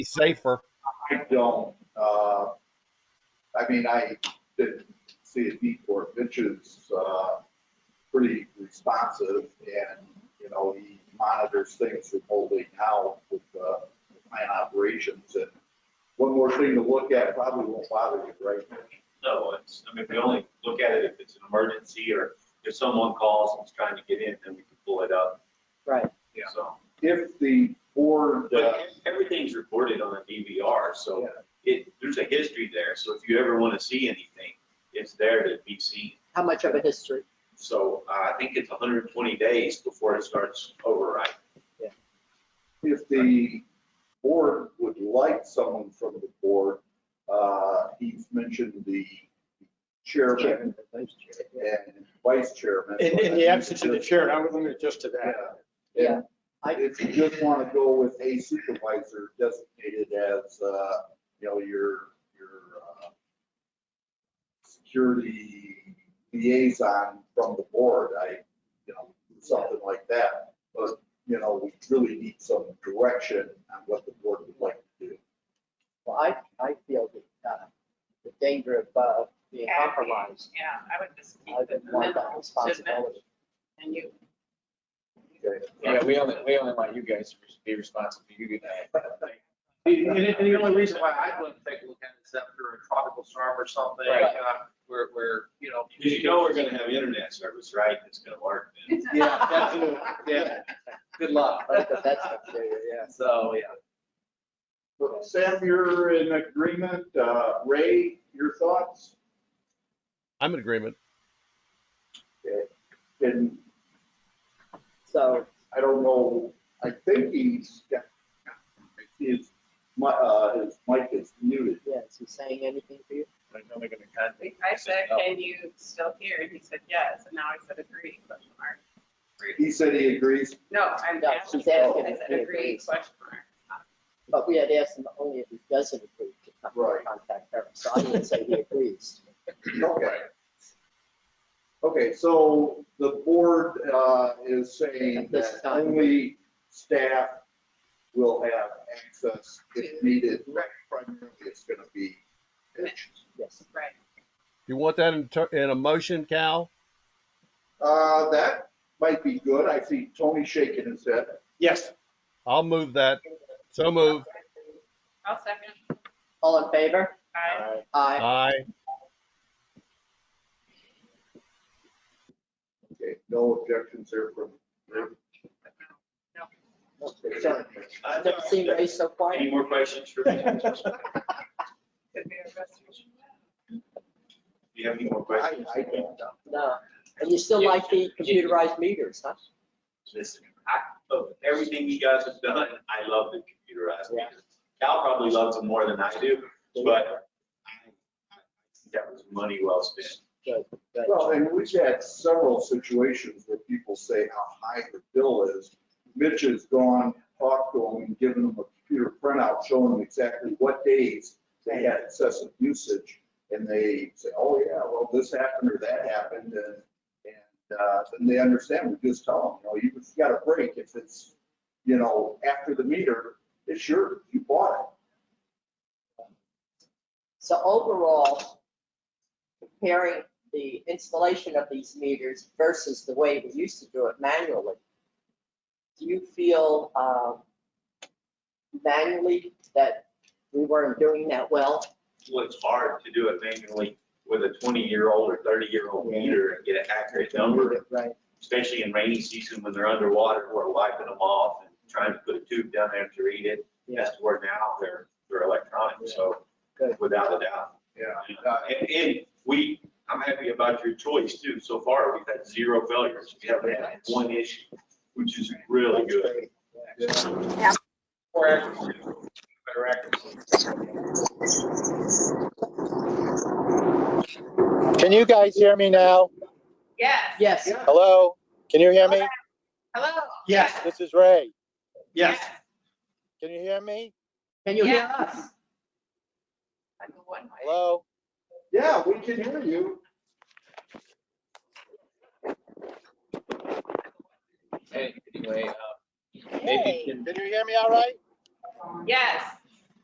be safer. I don't, uh, I mean, I didn't see a need for it. Mitch is, uh, pretty responsive and, you know, he monitors things remotely now with, uh, plant operations and one more thing to look at probably won't bother you, right, Mitch? No, it's, I mean, we only look at it if it's an emergency or if someone calls and's trying to get in, then we can pull it up. Right. So, If the board, but e-, uh, everything's recorded on a DVR, so yeah, it, there's a history there. So if you ever want to see anything, it's there to be seen. How much of a history? So uh, I think it's 120 days before it starts override. if the board would like someone from the board, uh, he's mentioned the chairman and vice chairman. In, in the absence of the chair, and I would limit it just to Yeah. that. And If you just want to go with a supervisor designated as, uh, you know, your, your, uh, security liaison from the board, I, you know, something like that. But, you know, we really need some direction on what the board would like to do. Well, I, I feel that, uh, the danger of, uh, being compromised, Yeah, I would just keep I it. didn't want that responsibility. And you. Okay? Yeah, we only, we only want you guys to be responsible. You do that. And, and the only reason why I wouldn't take a look at it is after a tropical storm or something, Right. uh, where, where, you know. Because you know we're going to have internet service, right? It's going to work. then. Yeah, that's, a- yeah, good luck. But the vets up there, yeah. So, yeah. But Sam, you're in agreement. Uh, Ray, your thoughts? I'm in agreement. And So, I don't know, I think he's, got- I see his, mi- uh, his mic is muted. yeah, is he saying anything for you? I said, can you still hear? And he said, yes. And now I said, agree, question mark. He said he agrees. No, I'm No, asking. she's asking I if said, he agree, agrees. question mark. But we had asked him only if he doesn't agree to come Right. contact her, so I would say he agrees. Okay. Okay, so the board, uh, is saying At this that time. only staff will have access if needed. Primarily, it's gonna be Mitch. Yes, Right. You want that in, ter- in a motion, Cal? Uh, that might be good. I see Tony shaking his head. Yes, I'll move that. So move. I'll second. all in favor? Aye. Aye. Aye. Okay, no objections there from. No. Okay, Sure. I've never seen Ray so Any quiet. more questions for me? Do Could be a restoration. you have any more I, questions? I don't know. No, and you still like the computerized meters, huh? Listen, I, of everything you guys have done, I love the computerized Yeah. meters. Cal probably loves them more than I do, but I- I think that was money well spent. Good, good. Well, and we've had several situations where people say how high the bill is. Mitch has gone, talked to them, and given them a computer printout showing them exactly what days they had excessive usage. And they say, oh yeah, well, this happened or that happened, and, and, uh, then they understand, we just tell them, you know, you've got a break if it's, you know, after the meter, it's your, you bought it. So overall, comparing the installation of these meters versus the way we used to do it manually, do you feel um, manually that we weren't doing that well? Well, it's hard to do it manually with a twenty-year-old or thirty-year-old meter and get an accurate number, Right. especially in rainy season when they're underwater, we're wiping them off and trying to put a tube down there to read it. Yeah. That's where now they're, they're electronic, so Good. without a doubt. Yeah. Uh, And, and we, I'm happy about your choice too. So far, we've had zero failures. We haven't had one issue, which is really That's good. great. Or after- Better accuracy. can you guys hear me now? Yes. Yes, Hello, can you hear me? Hello. Yes, this is Ray. Yes, Yes. can you hear me? can you hear Yes. us? I go one way. Hello? Yeah, we can hear you. Anyway, uh, Can you hear me all right? Yes.